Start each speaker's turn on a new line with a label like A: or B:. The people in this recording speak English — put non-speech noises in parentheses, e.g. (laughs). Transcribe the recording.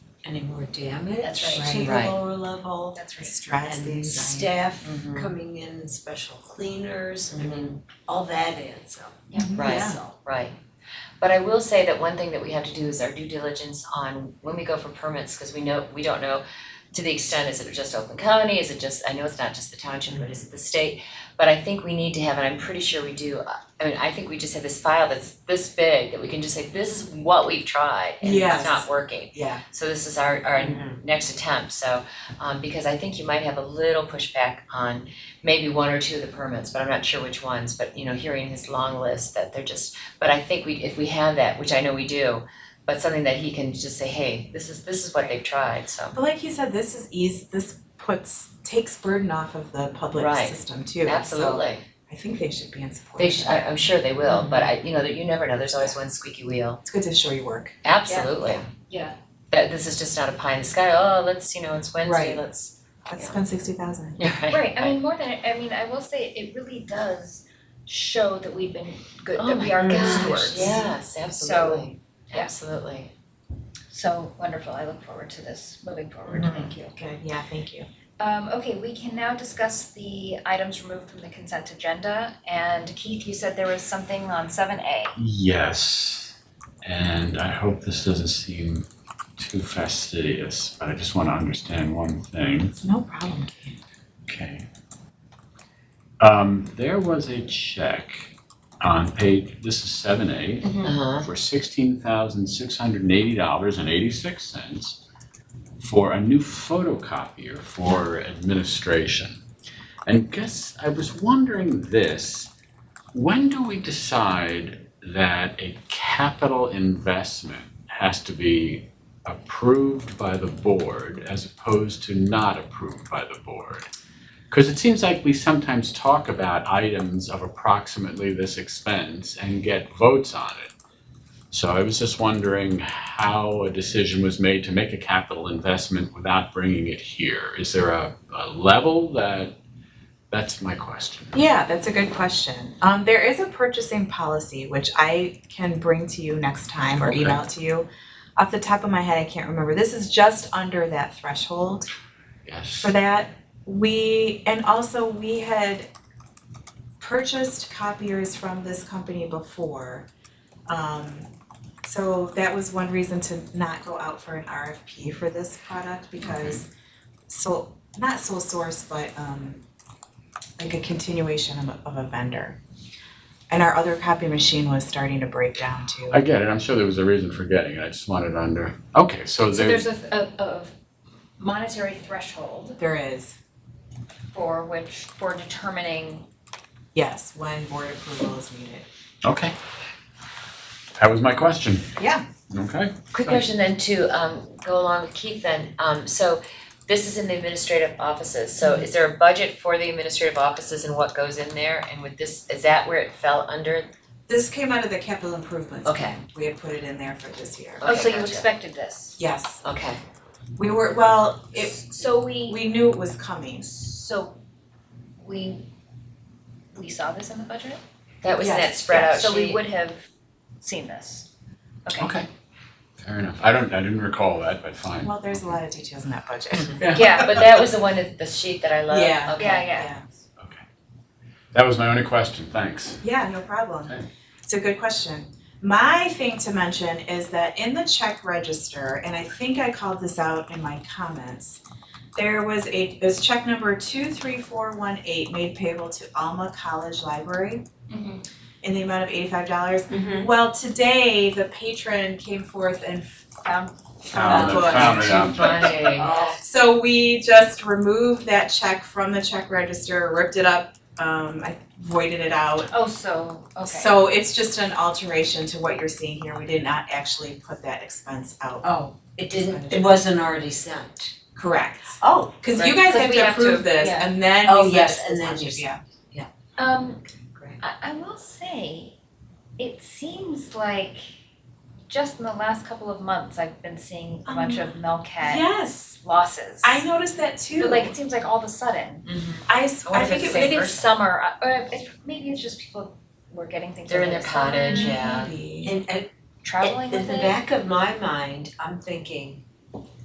A: any more damage
B: That's
C: right.
A: to the
C: Right.
A: lower level.
B: That's
A: And staff
C: Mm-hmm.
A: coming in, special cleaners, I mean, all that adds up.
C: Right.
A: So,
C: Right. But I will say that one thing that we have to do is our due diligence on when we go for permits, because we know, we don't know to the extent, is it just Oakland County, is it just, I know it's not just the township, but is it the state? But I think we need to have, and I'm pretty sure we do, uh, I mean, I think we just have this file that's this big that we can just say, this is what we've tried and it's
A: Yes.
C: not working.
A: Yeah.
C: So this is our our
B: Mm-hmm.
C: next attempt, so, um, because I think you might have a little pushback on maybe one or two of the permits, but I'm not sure which ones, but you know, hearing his long list that they're just, but I think we, if we have that, which I know we do, but something that he can just say, hey, this is, this is what they've tried, so,
D: But like you said, this is ease, this puts, takes burden off of the public
C: Right.
D: system too. So
C: absolutely.
D: I think they should be in support.
C: They
D: of
C: sh
D: that.
C: I, I'm sure they will, but
B: Mm-hmm.
C: I, you know, that you never know, there's always one squeaky wheel,
D: It's good to show your work.
C: absolutely.
B: Yeah.
C: That this is just not a pie in the sky, oh, let's, you know, it's Wednesday,
D: Right.
C: let's,
D: Let's
C: Yeah.
D: spend sixty thousand.
C: yeah, (laughs) right.
B: Right, I mean, more than, I mean, I will say it really does show that we've been good,
C: Oh
B: that we
C: my
B: are good
C: gosh,
B: stewards.
C: Yes, absolutely, absolutely.
B: So wonderful, I look forward to this moving forward,
D: Mhm.
B: thank you.
D: Good, yeah, thank you.
B: Um, okay, we can now discuss the items removed from the consent agenda. And Keith, you said there was something on seven A.
E: Yes, and I hope this doesn't seem too fastidious, but I just want to understand one thing.
D: It's no problem.
E: Okay. Um, there was a check on page, this is seven A,
C: Uh-huh.
E: for sixteen thousand six hundred and eighty dollars and eighty-six cents for a new photocopier for administration. And guess, I was wondering this, when do we decide that a capital investment has to be approved by the board as opposed to not approved by the board? Because it seems like we sometimes talk about items of approximately this expense and get votes on it. So I was just wondering how a decision was made to make a capital investment without bringing it here. Is there a, a level that, that's my question.
D: Yeah, that's a good question. Um, there is a purchasing policy, which I can bring to you next time or
E: Okay.
D: email to you. Off the top of my head, I can't remember. This is just under that threshold.
E: Yes.
D: for that. We, and also we had purchased copiers from this company before. Um, so that was one reason to not go out for an RFP for this product because so, not sole source, but um like a continuation of a, of a vendor. And our other copy machine was starting to break down too.
E: I get it. I'm sure there was a reason for getting it. I just wanted to under, okay, so
B: So
E: there's,
B: there's a, a, a monetary threshold
D: There is,
B: for which, for determining,
D: yes, when board approval is needed.
E: okay. That was my question.
D: Yeah.
E: Okay.
C: Quick
E: Sorry.
C: question then to um go along with Keith then, um so this is in the administrative offices, so is there a budget for the administrative offices and what goes in there? And with this, is that where it fell under?
D: This came out of the capital improvements.
C: Okay,
D: We had put it in there for this year.
B: oh, so
C: Okay,
B: you
C: gotcha.
B: expected this.
D: Yes,
C: okay,
D: we were, well, it,
B: So we,
D: we knew it was coming.
B: so we, we saw this in the budget?
C: that was in that
D: Yes,
C: spread out sheet.
B: So we would have seen this. Okay.
E: Okay. Fair enough. I don't, I didn't recall that, but fine.
D: Well, there's a lot of details in that budget.
E: (laughs)
C: Yeah, but that was the one, that- the sheet that I love,
D: Yeah.
C: okay.
B: Yeah, yeah.
D: Yeah,
E: Okay. That was my only question. Thanks.
D: yeah, no problem.
E: Okay.
D: It's a good question. My thing to mention is that in the check register, and I think I called this out in my comments, there was a, it was check number two three four one eight made payable to Alma College Library in the amount of eighty-five dollars.
B: Mm-hmm.
D: Well, today, the patron came forth and found,
A: Uh,
D: found the
E: Found it,
D: book.
E: found it.
C: Too funny.
A: Oh,
D: So we just removed that check from the check register, ripped it up, um, I voided it out.
B: Oh, so, okay.
D: So it's just an alteration to what you're seeing here, we did not actually put that expense out.
A: Oh, it didn't, it wasn't already sent.
D: Correct.
A: Oh.
D: Cause you guys
B: Right. 'Cause
D: have
B: we
D: to
B: have to-
D: approve this
B: yeah.
D: and then
A: Oh,
D: we send
A: yes,
D: it to
A: and
D: the
A: then you
D: township,
A: s-
D: yeah.
B: Um,
A: Great.
B: I, I will say, it seems like just in the last couple of months, I've been seeing a bunch of Melcat
D: Yes,
B: losses.
D: I noticed that too.
B: But like, it seems like all of a sudden,
D: I, s-
C: I wonder
D: I
C: if
D: think
C: it's
D: it
C: the same
B: maybe
D: maybe
C: or
B: it's summer, uh, or it's, maybe it's just people were getting things.
C: They're in
B: over
C: their
B: the summer,
C: cottage, yeah.
D: maybe.
A: And, and
B: Traveling
A: in
B: with
A: the
B: it.
A: back of my mind, I'm thinking,